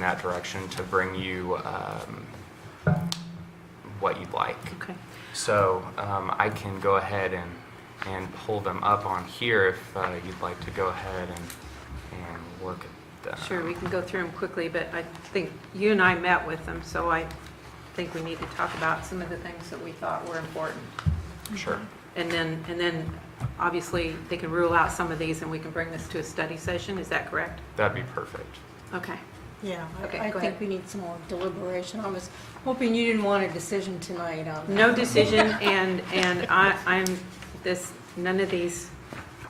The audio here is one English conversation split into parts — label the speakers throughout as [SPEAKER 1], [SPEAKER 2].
[SPEAKER 1] in that direction to bring you um, what you'd like.
[SPEAKER 2] Okay.
[SPEAKER 1] So um, I can go ahead and, and pull them up on here if uh, you'd like to go ahead and, and look at them.
[SPEAKER 2] Sure, we can go through them quickly, but I think you and I met with them, so I think we need to talk about some of the things that we thought were important.
[SPEAKER 1] Sure.
[SPEAKER 2] And then, and then, obviously, they can rule out some of these, and we can bring this to a study session, is that correct?
[SPEAKER 1] That'd be perfect.
[SPEAKER 2] Okay.
[SPEAKER 3] Yeah, I-
[SPEAKER 2] Okay,
[SPEAKER 3] I
[SPEAKER 2] go
[SPEAKER 3] think
[SPEAKER 2] ahead.
[SPEAKER 3] we need some more deliberation. I was hoping you didn't want a decision tonight um, on.
[SPEAKER 2] No decision, and, and I, I'm, this, none of these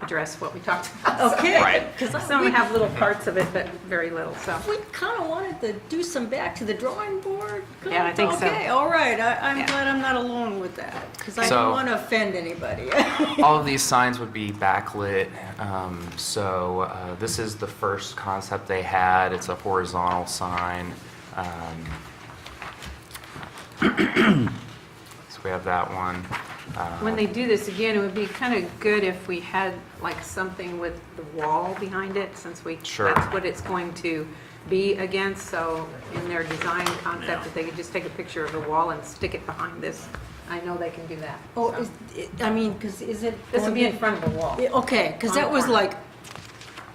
[SPEAKER 2] address what we talked about.
[SPEAKER 3] Okay.
[SPEAKER 1] Right.
[SPEAKER 3] Because
[SPEAKER 2] Some have little parts of it, but very little, so.
[SPEAKER 3] we kind of wanted to do some back to the drawing board. kinda.
[SPEAKER 2] Yeah, I think so.
[SPEAKER 3] Okay, all right. I- I'm
[SPEAKER 2] Yeah.
[SPEAKER 3] glad I'm not alone with that because I
[SPEAKER 1] So-
[SPEAKER 3] don't want to offend anybody.
[SPEAKER 1] All of these signs would be backlit. Um, so uh, this is the first concept they had. It's a horizontal sign. Um, so we have that one. Uh,
[SPEAKER 2] When they do this again, it would be kind of good if we had like something with the wall behind it, since we,
[SPEAKER 1] Sure.
[SPEAKER 2] that's what it's going to be against, so in their design concept, that they could just take a picture of the wall and stick it behind this. I know they can do that.
[SPEAKER 3] Oh,
[SPEAKER 2] so.
[SPEAKER 3] is, it- I mean, because is it?
[SPEAKER 2] This would be in
[SPEAKER 3] going
[SPEAKER 2] front of the wall.
[SPEAKER 3] to- Yeah, oh. Okay, because
[SPEAKER 2] On the
[SPEAKER 3] that was
[SPEAKER 2] corner.
[SPEAKER 3] like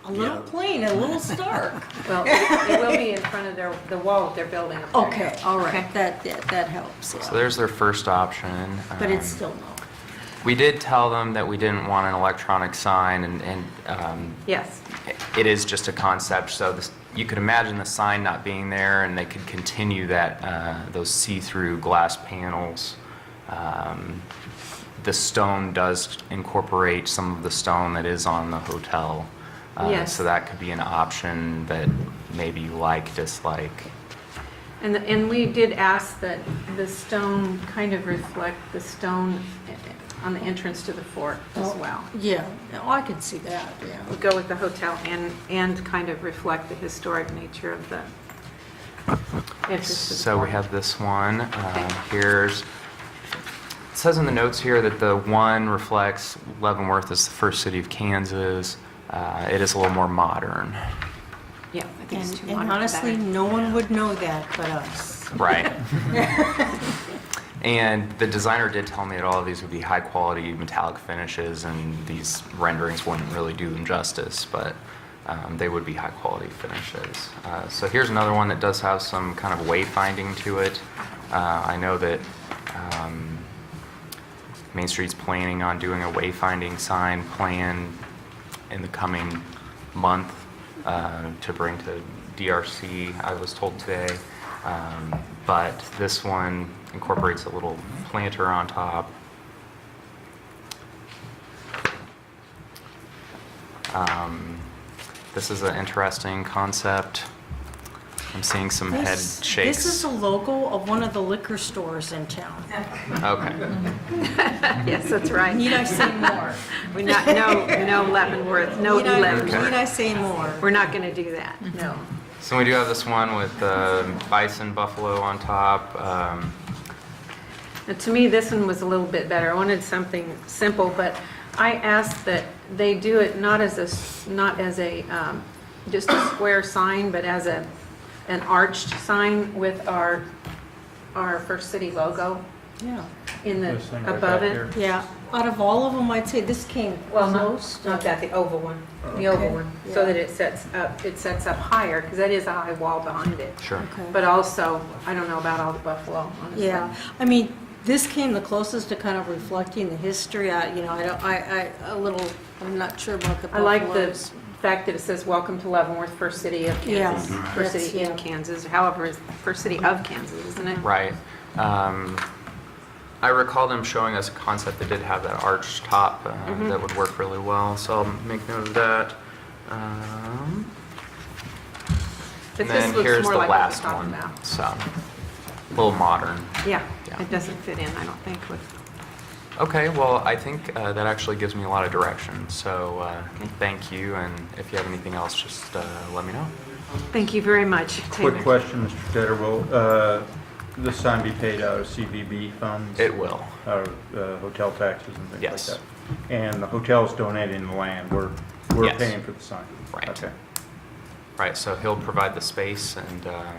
[SPEAKER 3] a little plain, a little stark.
[SPEAKER 2] Well, it it will be in front of their, the wall that they're building up there.
[SPEAKER 3] Okay, all right. That, that that helps, yeah.
[SPEAKER 1] so there's their first option.
[SPEAKER 3] But it's
[SPEAKER 1] Um,
[SPEAKER 3] still no.
[SPEAKER 1] We did tell them that we didn't want an electronic sign, and, and um,
[SPEAKER 2] Yes,
[SPEAKER 1] it is just a concept, so this- you could imagine the sign not being there, and they could continue that, uh, those see-through glass panels. Um, The stone does incorporate some of the stone that is on the hotel. Uh,
[SPEAKER 2] Yes.
[SPEAKER 1] So that could be an option that maybe you like, dislike.
[SPEAKER 2] and, the- and we did ask that the stone kind of reflect the stone eh, on the entrance to the fort as
[SPEAKER 3] Oh,
[SPEAKER 2] well.
[SPEAKER 3] Yeah, oh, I could see that, yeah.
[SPEAKER 2] would go with the hotel and, and kind of reflect the historic nature of the entrance to the
[SPEAKER 1] So we
[SPEAKER 2] park.
[SPEAKER 1] have this one. Um, Here's, it says in the notes here that the one reflects Leavenworth is the first city of Kansas. Uh, It is a little more modern.
[SPEAKER 2] Yeah, I think it's
[SPEAKER 3] And
[SPEAKER 2] too modern for
[SPEAKER 3] and
[SPEAKER 2] that.
[SPEAKER 3] honestly, no one would know that but us.
[SPEAKER 1] Right. And the designer did tell me that all of these would be high-quality metallic finishes, and these renderings wouldn't really do them justice, but um, they would be high-quality finishes. Uh, So here's another one that does have some kind of wayfinding to it. Uh, I know that um, Main Street's planning on doing a wayfinding sign plan in the coming month uh, to bring to DRC, I was told today. Um, But this one incorporates a little planter on top. Um, This is an interesting concept. I'm seeing some head
[SPEAKER 3] This-
[SPEAKER 1] shakes.
[SPEAKER 3] This is a logo of one of the liquor stores in town.
[SPEAKER 1] Okay.
[SPEAKER 2] Yes, that's right.
[SPEAKER 3] Need I say more?
[SPEAKER 2] We're not, no, no Leavenworth, no
[SPEAKER 3] Need I-
[SPEAKER 2] Leavenworth.
[SPEAKER 3] Need I say more?
[SPEAKER 2] We're not going to do that, no.
[SPEAKER 1] So we do have this one with um, bison buffalo on top. Um,
[SPEAKER 2] Now, To me, this one was a little bit better. I wanted something simple, but I asked that they do it not as a, s- not as a, um, just a square sign, but as a, an arched sign with our, our First City logo
[SPEAKER 3] Yeah,
[SPEAKER 2] in the,
[SPEAKER 4] This thing right
[SPEAKER 2] above
[SPEAKER 4] back
[SPEAKER 2] it.
[SPEAKER 4] here.
[SPEAKER 3] yeah. Out of all of them, I'd say this came
[SPEAKER 2] Well, not,
[SPEAKER 3] close.
[SPEAKER 2] not that, the oval one, the oval
[SPEAKER 3] Okay.
[SPEAKER 2] one, so
[SPEAKER 3] Yeah.
[SPEAKER 2] that it sets up, it sets up higher, because that is a high wall behind it.
[SPEAKER 1] sure.
[SPEAKER 3] Okay.
[SPEAKER 2] But also, I don't know about all the buffalo, honestly.
[SPEAKER 3] Yeah, I mean, this came the closest to kind of reflecting the history. I, you know, I don't, I, I, a little, I'm not sure about the
[SPEAKER 2] I like the
[SPEAKER 3] buffaloes.
[SPEAKER 2] fact that it says, "Welcome to Leavenworth, first city of Kansas."
[SPEAKER 3] Yeah.
[SPEAKER 2] First city
[SPEAKER 3] That's-
[SPEAKER 2] in
[SPEAKER 3] yeah.
[SPEAKER 2] Kansas, however, it's first city of Kansas, isn't it?
[SPEAKER 1] Right. Um, I recall them showing us a concept that did have that arched top uh,
[SPEAKER 2] Mm-hmm.
[SPEAKER 1] that would work really well. So I'll make note of that. Um,
[SPEAKER 2] But
[SPEAKER 1] and
[SPEAKER 2] this
[SPEAKER 1] then
[SPEAKER 2] looks
[SPEAKER 1] here's
[SPEAKER 2] more
[SPEAKER 1] the
[SPEAKER 2] like what
[SPEAKER 1] last
[SPEAKER 2] we're talking
[SPEAKER 1] one.
[SPEAKER 2] about.
[SPEAKER 1] So a little modern.
[SPEAKER 2] Yeah,
[SPEAKER 1] Yeah.
[SPEAKER 2] it doesn't fit in, I don't think, with,
[SPEAKER 1] Okay. Well, I think uh, that actually gives me a lot of direction. So uh, thank you. And if you have anything else, just uh, let me know.
[SPEAKER 2] thank you very much.
[SPEAKER 4] Quick
[SPEAKER 2] Taylor.
[SPEAKER 4] question, Mr. Tedder, will uh, this sign be paid out of CVB funds?
[SPEAKER 1] It will.
[SPEAKER 4] Out of uh, hotel taxes and things like
[SPEAKER 1] Yes.
[SPEAKER 4] that? And the hotel's donating the land, we're, we're
[SPEAKER 1] Yes.
[SPEAKER 4] paying for the sign?
[SPEAKER 1] Right.
[SPEAKER 4] Okay.
[SPEAKER 1] Right, so he'll provide the space and, uh,